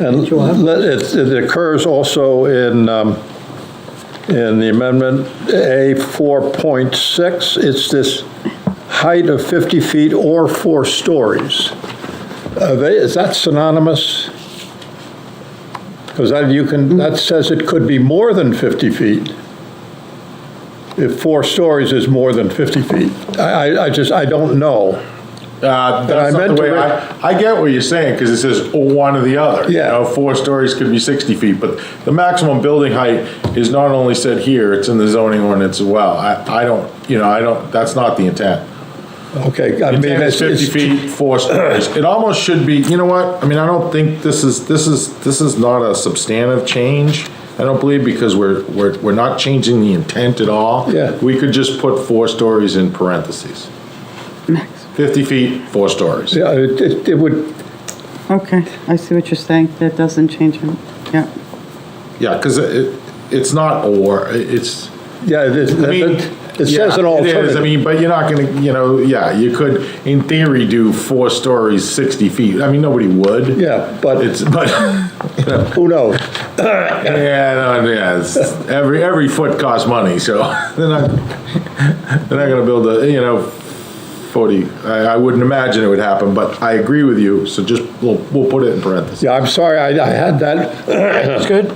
And let- it it occurs also in, um, in the amendment A 4.6. It's this height of 50 feet or four stories. Are they, is that synonymous? Because that you can, that says it could be more than 50 feet. If four stories is more than 50 feet. I, I- I just, I don't know. Uh, I That's not meant to the way, re- I, I get what you're saying, because it says or one or the other. Yeah. You know, four stories could be 60 feet, but the maximum building height is not only said here, it's in the zoning ordinance as well. I, I don't, you know, I don't, that's not the intent. Okay, I The mean, Intent is it's, 50 it's- feet, four stories. It almost should be, you know what, I mean, I don't think this is, this is, this is not a substantive change. I don't believe, because we're, we're, we're not changing the intent at all. Yeah. We could just put four stories in parentheses. 50 feet, four stories. yeah, it- it it would, Okay, I see what you're saying. That doesn't change it. Yeah. Yeah, because it, it's not or, it's, Yeah, it is- I mean. it it says yeah, an it is, I alternative. mean, but you're not gonna, you know, yeah, you could, in theory, do four stories, 60 feet. I mean, nobody would. Yeah, but It's, but, who knows? yeah, no, yeah, it's, every, every foot costs money, so they're not, they're not gonna build a, you know, 40, I, I wouldn't imagine it would happen, but I agree with you, so just, we'll, we'll put it in parentheses. Yeah, I'm sorry, I I had that. That's good.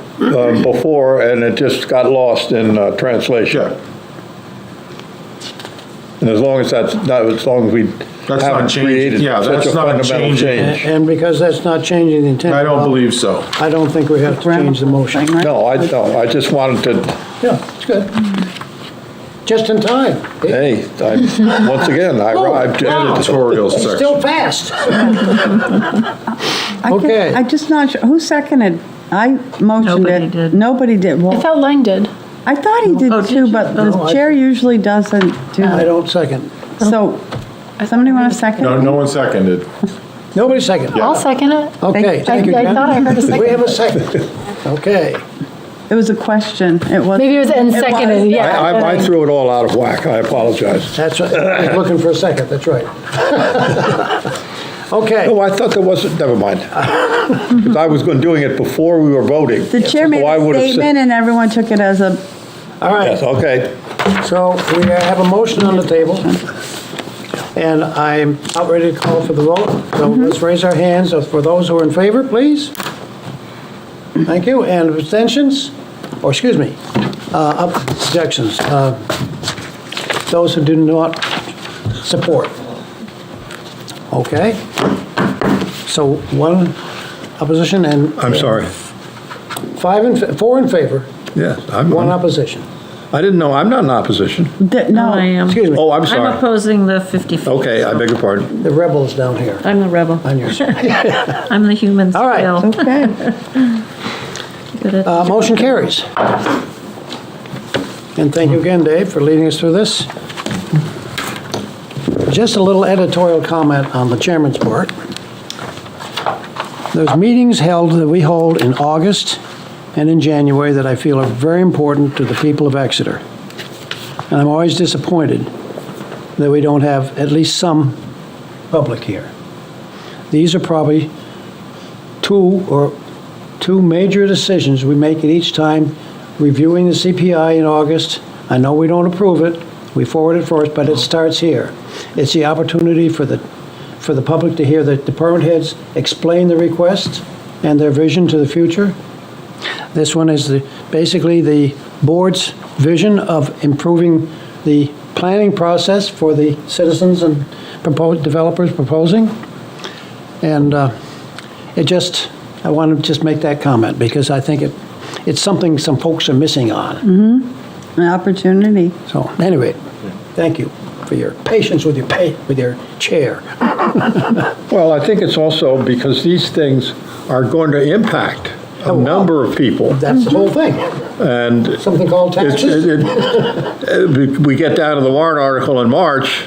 Before, and it just got lost in uh, translation. Sure, And as long as that's, not as long as we that's not haven't changing, created yeah, such a that's not fundamental changing. change. And because that's not changing the intent. I don't believe so. I don't think we have to change the motion. Grammar thing, right? No, I, no, I just wanted to, Yeah, it's good. Just in time. It- hey, I- once again, I arrived. wow. Editorial It's section. still passed. I can't- Okay. I just not, sure. who seconded? I motioned Nobody it. did. Nobody did. I Well, thought Lang did. I thought he Oh, did did too, you? but No, the I- chair usually doesn't do I that. don't second. So, Oh. somebody want to second? No, no one seconded. Nobody second. I'll second it. Okay, I, thank you, I thought I Jen. heard a We have second. a second. Okay. It was a question. It was. Maybe it was and It was. seconded, I- yeah. I I but- threw it all out of whack, I apologize. That's, right. I was looking for a second, that's right. Okay, No, Oh, I thought there wasn't, never mind. 'Cause I was going, doing it before we were voting. The chair made Oh, I a would've said- statement and everyone took it as a, all right. Yes, okay. So we have a motion on the table, and I'm about ready to call for the vote. So let's raise our hands for those who are in favor, please. Thank you. And abstentions, or excuse me, uh, ob- objections. uh, Those who do not support. Okay. So one opposition and I'm sorry. five, in fa- four in favor, Yes, I'm, one I'm- opposition. I didn't know, I'm not in opposition. the- I no, am. Excuse me, Oh, I'm I'm sorry. opposing the 50 feet. Okay, I beg your pardon. the rebels down here I'm the rebel. on your side. I'm the human All right. scale. okay. Good at- Uh, Motion carries. And thank you again, Dave, for leading us through this. Just a little editorial comment on the chairman's part. There's meetings held that we hold in August and in January that I feel are very important to the people of Exeter. And I'm always disappointed that we don't have at least some public here. These are probably two or two major decisions we make at each time, reviewing the CPI in August. I know we don't approve it, we forward it first, but it starts here. It's the opportunity for the, for the public to hear the department heads explain the request and their vision to the future. This one is the, basically the board's vision of improving the planning process for the citizens and proposed, developers proposing. And uh, it just, I want to just make that comment because I think it, it's something some folks are missing on. An opportunity. So anyway, thank you for your patience with your pay, with your chair. Well, I think it's also because these things are going to impact a Oh, wow. number of people, That's the whole thing. and Something called it's, it- taxes. it- we get down to the warrant article in March,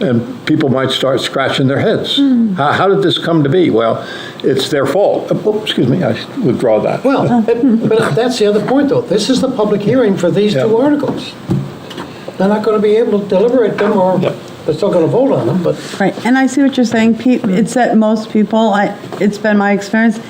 and people might start scratching their heads. How, how did this come to be? Well, it's their fault. Oh, Excuse me, I withdraw that. Well, but but that's the other point though. This is the public hearing for these two Yeah. articles. They're not going to be able to deliberate them or Yep. they're still going to vote on them, but Right, and I see what you're saying, Pete. It's that most people, I, it's been my experience,